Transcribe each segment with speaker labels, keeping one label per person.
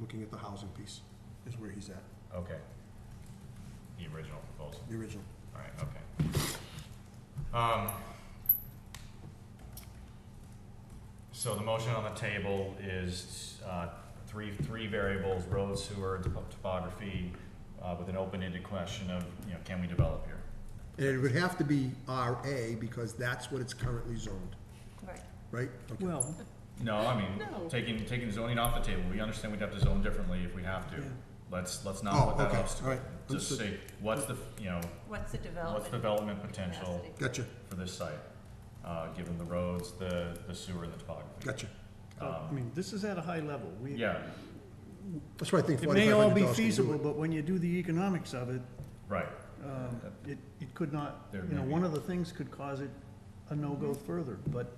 Speaker 1: looking at the housing piece, is where he's at,
Speaker 2: Okay. The original proposal,
Speaker 1: the original.
Speaker 2: alright, okay. Um. So the motion on the table is, uh, three, three variables, road, sewer, topo- topography, uh, with an open-ended question of, you know, can we develop here?
Speaker 1: And it would have to be RA, because that's what it's currently zoned,
Speaker 3: Right.
Speaker 1: right? Okay.
Speaker 4: Well,
Speaker 2: No, I mean,
Speaker 3: No.
Speaker 2: taking, taking zoning off the table, we understand we'd have to zone differently if we have to.
Speaker 4: Yeah.
Speaker 2: Let's, let's
Speaker 1: Oh,
Speaker 2: not put that
Speaker 1: okay, all
Speaker 2: obstacle,
Speaker 1: right,
Speaker 2: just
Speaker 1: understood.
Speaker 2: say, what's the, you know,
Speaker 3: What's the
Speaker 2: what's
Speaker 3: development?
Speaker 2: development potential
Speaker 3: capacity?
Speaker 1: Gotcha,
Speaker 2: for this site? Uh, given the roads, the, the sewer and the topography.
Speaker 1: gotcha.
Speaker 4: I mean, this is at a high level. We-
Speaker 2: Uh, Yeah,
Speaker 1: That's why I think
Speaker 4: It may all
Speaker 1: forty-five
Speaker 4: be
Speaker 1: hundred dollars
Speaker 4: feasible,
Speaker 1: can do it.
Speaker 4: but when you do the economics of it,
Speaker 2: right,
Speaker 4: um, it, it could not,
Speaker 2: There
Speaker 4: you know,
Speaker 2: may be.
Speaker 4: one of the things could cause it a no-go further, but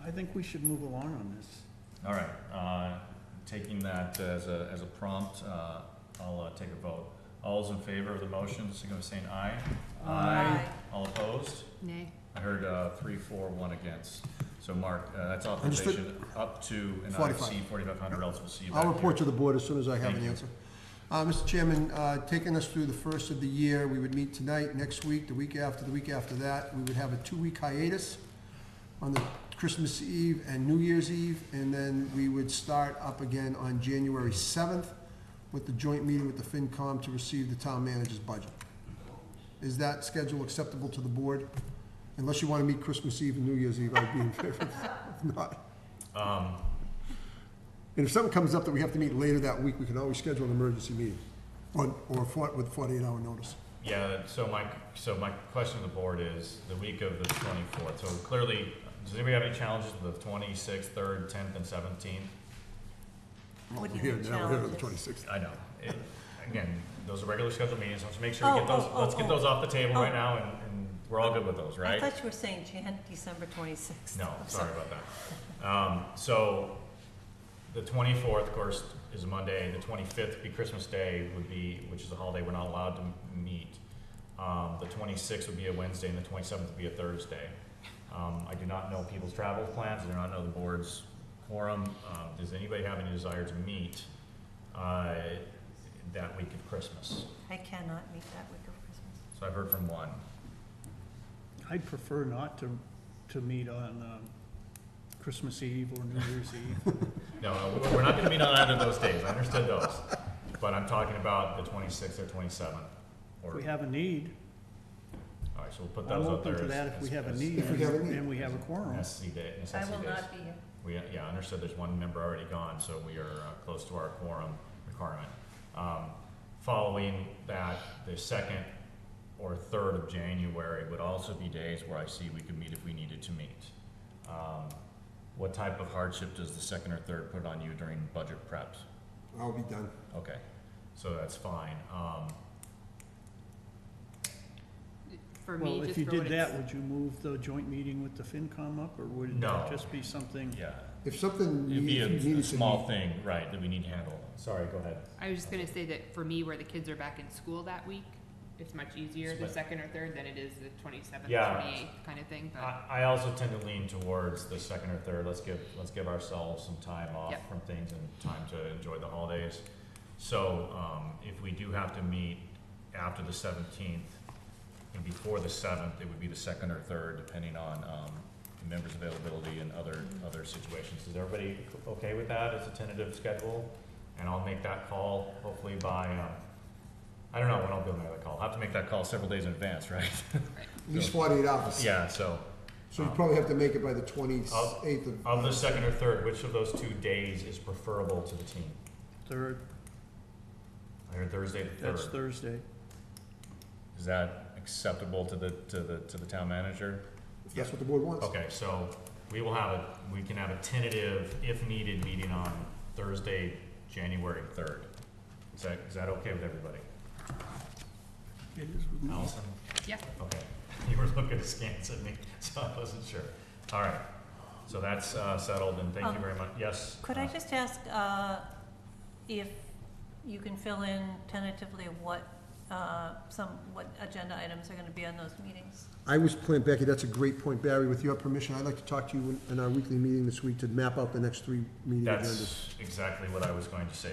Speaker 4: I- I think we should move along on this.
Speaker 2: all right, uh, taking that as a, as a prompt, uh, I'll, uh, take a vote. All those in favor of the motion, signal by saying aye.
Speaker 3: Aye.
Speaker 2: All opposed?
Speaker 3: Nay.
Speaker 2: I heard uh, three, four, one against. So Mark, uh, that's
Speaker 1: Understood.
Speaker 2: authorization up to and I've
Speaker 1: 45.
Speaker 2: seen 4,500, else we'll see you back
Speaker 1: I'll report to
Speaker 2: here.
Speaker 1: the board as soon as I have
Speaker 2: Thank
Speaker 1: an
Speaker 2: you.
Speaker 1: answer. Uh, Mr. Chairman, uh, taking us through the first of the year, we would meet tonight, next week, the week after, the week after that. We would have a two-week hiatus on the Christmas Eve and New Year's Eve, and then we would start up again on January seventh with the joint meeting with the FinCom to receive the town manager's budget. Is that schedule acceptable to the board? Unless you want to meet Christmas Eve and New Year's Eve, I'd be in favor of not.
Speaker 2: Um,
Speaker 1: And if something comes up that we have to meet later that week, we can always schedule an emergency meeting, or, or for- with forty-eight hour notice.
Speaker 2: Yeah, that- so my, so my question to the board is, the week of the 24th, so clearly, does anybody have any challenges with the 26th, 3rd, 10th, and 17th?
Speaker 3: What do you
Speaker 1: Here,
Speaker 3: mean
Speaker 1: now, here on the
Speaker 3: challenges?
Speaker 1: twenty-sixth.
Speaker 2: I know. It- Again, those are regular scheduled meetings, let's make sure we
Speaker 3: Oh,
Speaker 2: get those,
Speaker 3: oh, oh,
Speaker 2: let's get
Speaker 3: oh.
Speaker 2: those off the table right
Speaker 3: Oh.
Speaker 2: now, and and we're all good with those,
Speaker 3: I
Speaker 2: right?
Speaker 3: thought you were saying Jan, December twenty-sixth.
Speaker 2: No, sorry about that. Um, so, the twenty-fourth, of course, is Monday, the twenty-fifth would be Christmas Day, would be, which is a holiday, we're not allowed to m- meet. Um, the twenty-sixth would be a Wednesday, and the twenty-seventh would be a Thursday. Um, I do not know people's travel plans, I do not know the board's quorum, um, does anybody have any desire to meet, uh, that week of Christmas?
Speaker 3: I cannot meet that week of Christmas.
Speaker 2: So I've heard from one.
Speaker 4: I'd prefer not to, to meet on um, Christmas Eve or New Year's Eve.
Speaker 2: No, no, we're not gonna meet on either of those days, I understood those, but I'm talking about the twenty-sixth or twenty-seventh.
Speaker 4: If
Speaker 2: Or,
Speaker 4: we have a need,
Speaker 2: alright, so we'll put
Speaker 4: I'm
Speaker 2: those up there
Speaker 4: open
Speaker 2: as.
Speaker 4: to that if we
Speaker 2: as-
Speaker 4: have a
Speaker 2: as-
Speaker 4: need
Speaker 1: If we have a need.
Speaker 4: and we have a quorum.
Speaker 2: Necessity day,
Speaker 3: I
Speaker 2: necessity
Speaker 3: will
Speaker 2: days.
Speaker 3: not be here.
Speaker 2: We, yeah, I understood there's one member already gone, so we are uh, close to our quorum requirement. Um, Following that, the second or third of January would also be days where I see we could meet if we needed to meet. Um, What type of hardship does the second or third put on you during budget preps?
Speaker 1: I'll be done.
Speaker 2: Okay, so that's fine. Um,
Speaker 5: For
Speaker 4: Well,
Speaker 5: me,
Speaker 4: if
Speaker 5: just
Speaker 4: you
Speaker 5: for what
Speaker 4: did that,
Speaker 5: it's,
Speaker 4: would you move the joint meeting with the FinCom up, or would
Speaker 2: No.
Speaker 4: it just be something?
Speaker 2: yeah,
Speaker 1: If something,
Speaker 2: it'd be
Speaker 1: you- if you
Speaker 2: a- a
Speaker 1: needed to
Speaker 2: small
Speaker 1: meet,
Speaker 2: thing, right, that we need to handle. Sorry, go ahead.
Speaker 5: I was just gonna say that for me, where the kids are back in school that week, it's much easier, the
Speaker 2: Split.
Speaker 5: second or third, than it is the twenty-seventh,
Speaker 2: Yeah.
Speaker 5: twenty-eighth kind of thing, but.
Speaker 2: I, I also tend to lean towards the second or third, let's give, let's give ourselves some time off
Speaker 5: Yep.
Speaker 2: from things and time to enjoy the holidays. So, um, if we do have to meet after the seventeenth and before the seventh, it would be the second or third, depending on, um, the members' availability and other, other situations. Is everybody okay with that as a tentative schedule? And I'll make that call hopefully by, um, I don't know when I'll be able to make that call. I'll have to make that call several days in advance, right?
Speaker 1: at least forty-eight hours.
Speaker 2: Yeah, so.
Speaker 1: So you probably have to make it by the twenty-eighth of.
Speaker 2: Of the second or third, which of those two days is preferable to the team?
Speaker 4: Third,
Speaker 2: I heard Thursday the
Speaker 4: that's
Speaker 2: third.
Speaker 4: Thursday.
Speaker 2: Is that acceptable to the, to the, to the town manager?
Speaker 1: If that's what the board wants.
Speaker 2: Okay, so we will have a, we can have a tentative, if needed, meeting on Thursday, January third. Is that, is that okay with everybody?
Speaker 4: It is with
Speaker 3: Mm-hmm.
Speaker 4: me.
Speaker 2: Allison?
Speaker 5: Yeah.
Speaker 2: Okay, you were looking askance at me, so I wasn't sure. All right, so that's, uh, settled and thank you
Speaker 3: Um,
Speaker 2: very much. Yes?
Speaker 3: Could I
Speaker 2: uh,
Speaker 3: just ask, uh, if you can fill in tentatively what, uh, some, what agenda items are gonna be on those meetings?
Speaker 1: I was planning, Becky, that's a great point, Barry, with your permission, I'd like to talk to you in- in our weekly meeting this week to map out the next three meeting agendas.
Speaker 2: That's exactly what I was going to say.